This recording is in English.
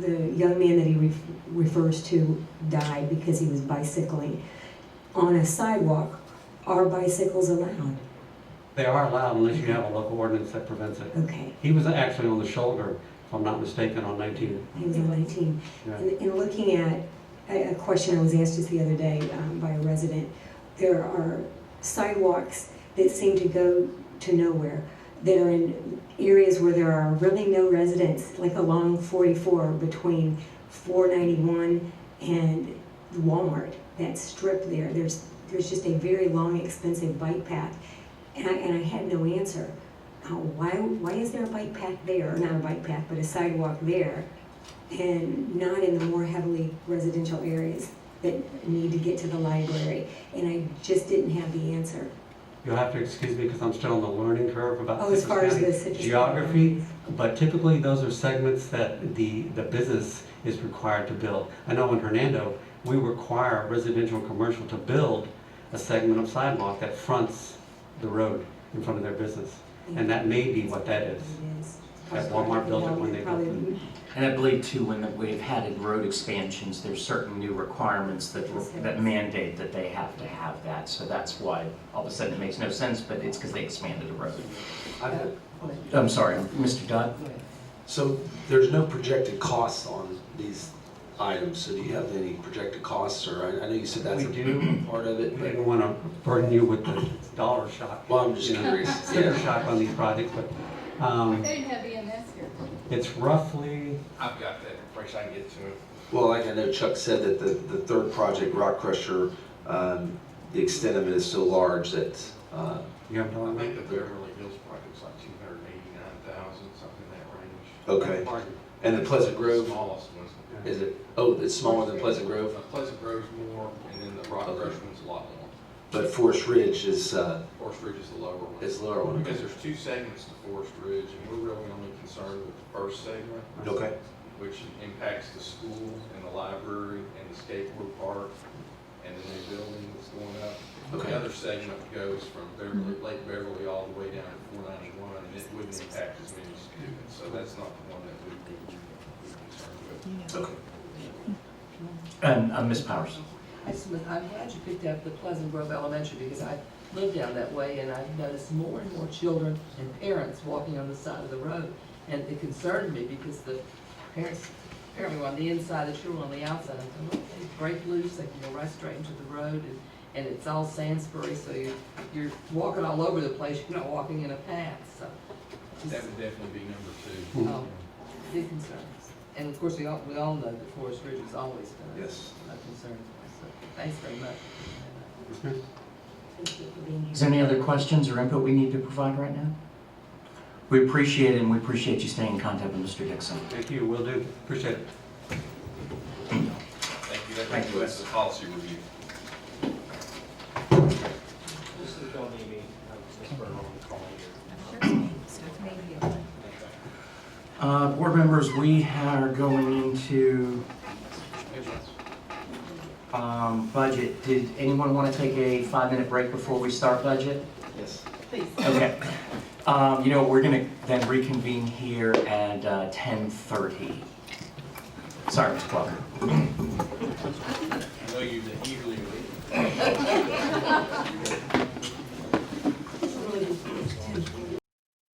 the young man that he ref- refers to died because he was bicycling on a sidewalk. Are bicycles allowed? They are allowed unless you have a local ordinance that prevents it. Okay, He was actually on the shoulder, if I'm not mistaken, on 19. he was on 19. Yeah. And, and looking at a, a question I was asked just the other day um, by a resident, there are sidewalks that seem to go to nowhere that are in areas where there are really no residents, like along 44 between 491 and Walmart, that strip there. There's there's just a very long, expensive bike path, and I, and I had no answer. Uh, why why is there a bike path there? Not a bike path, but a sidewalk there and not in the more heavily residential areas that need to get to the library. And I just didn't have the answer. You'll have to excuse me because I'm still on the learning curve about Oh, as Citrus far as County the citrus. geography. But typically, those are segments that the, the business is required to build. I know in Hernando, we require residential and commercial to build a segment of sidewalk that fronts the road in front of their business. And that may be what that is. It is. That Walmart built it when they built it. And I believe too, when we've had road expansions, there's certain new requirements that, that mandate that they have to have that. So that's why all of a sudden it makes no sense, but it's because they expanded the road. I- I'm sorry, Mr. Dodd? So there's no projected costs on these items, so do you have any projected costs, or I I know you said that's We do. a part of We it, but, didn't want to burden you with the dollar shock. well, I'm just You know, curious. sticker Yeah, shock on these projects, but um, They didn't have EMS here. it's roughly, I've got that information, I can get to it. well, like I know Chuck said that the, the third project, Rock Crusher, um, the extent of it is so large that, uh, you have a dollar I amount? think the Beverly Hills project's like two hundred and eighty-nine thousand, something in that range. okay. And the Pleasant The Grove, Smallest ones. is it, oh, it's smaller than Pleasant Grove, The Pleasant Grove's more, and then the Rock Okay. Rush one's a lot more. but Forest Ridge is, uh, Forest Ridge is the lower one. is lower one. Because there's two segments to Forest Ridge, and we're really only concerned with the first segment, Okay, which impacts the school and the library and the skateboard park and the new building that's going up. Okay. The other segment goes from Beverly, Mm-hmm. Lake Beverly all the way down to four ninety-one, and it wouldn't impact as many students, so that's not the one that we'd be be concerned with. okay. And uh, Ms. Powers? I just- I'm glad you picked up the Pleasant Grove Elementary because I live down that way and I've noticed more and more children and parents walking on the side of the road. And it concerned me because the parents apparently were on the inside, the children on the outside. I'm going, look, they break loose, they can go right straight into the road and, and it's all Sandsbury, so you're, you're walking all over the place, you're not walking in a path, so. just- That would definitely be number two. Oh, big concerns. And of course, we all, we all know that Forest Ridge is always been a Yes. a concern for us, so thanks very much. Is there any other questions or input we need to provide right now? We appreciate it, and we appreciate you staying in contact with Mr. Dixon. Thank you, will do, appreciate it. Thank you, that Thank you. concludes the policy review. This is Bill Neby, uh, Ms. Bernal calling you. Uh, Board members, we are going into um, budget. Did anyone want to take a five-minute break before we start budget? Yes. Please. Okay. Um, You know, we're going to then reconvene here at uh, 10:30. Sorry, Ms. Plucker. I know you've been eagerly waiting.